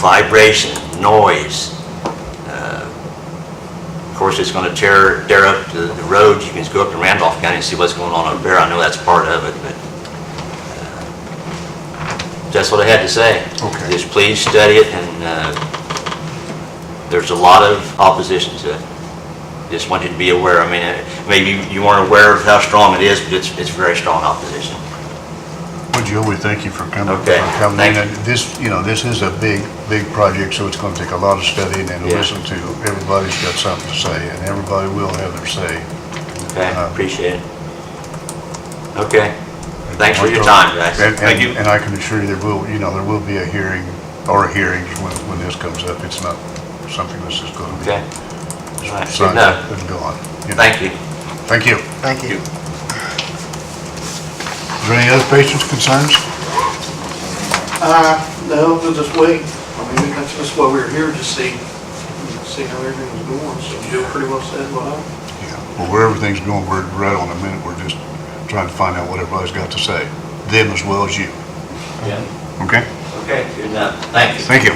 vibration, noise. Uh, Of course, it's going to tear, tear up the the roads. You can just go up to Randolph County and see what's going on up there. I know that's part of it, but uh, that's what I had to say. Okay. Just please study it, and uh, there's a lot of opposition to it. Just want you to be aware. I mean, uh, maybe you weren't aware of how strong it is, but it's, it's very strong opposition. Well, Joe, we thank you for coming. Okay, for coming thank in. And This, you know, this is a big, big project, so it's going to take a lot of studying and Yeah. listen to, everybody's got something to say, and everybody will have their say. Okay, Uh, appreciate it. Okay, thanks for your time, guys. And- and- Thank you. And I can assure you, there will, you know, there will be a hearing, or hearings, when, when this comes up. It's not something that's just going to Okay, be all right, good signed enough. up and gone. you know. Thank you. Thank you. Thank you. Is there any other patients' concerns? Uh, no, we'll just wait. I mean, that's just why we were here, to see, see how everything was going. So Joe pretty well said what I, Yeah. Well, where everything's going, we're right on a minute. We're just trying to find out what everybody's got to say, them as well as you. Yeah. Okay? Okay, good enough. Thank you. Thank you.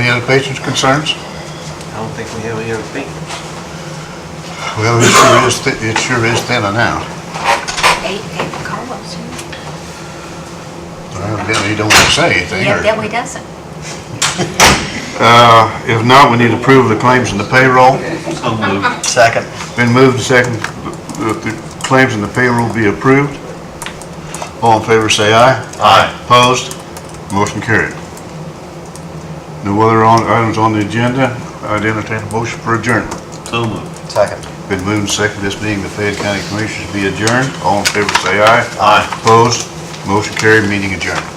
Any other patients' concerns? I don't think we have any other thing. Well, it sure is, thi- it sure is thinner now. Eight, eight Carlos. huh? Well, Evidently, you don't want to say anything, Yeah, or... that way doesn't. Uh, If not, we need to approve the claims and the payroll. Second. Been moved to second, that the claims and the payroll be approved. All in favor, say aye. Aye. Opposed? Motion carried. No other on- items on the agenda. I'd entertain a motion for adjournment. Second. Been moved and seconded, this meeting, the Fayette County Commissioners be adjourned. All in favor, say aye. Aye. Opposed? Motion carried, meeting adjourned.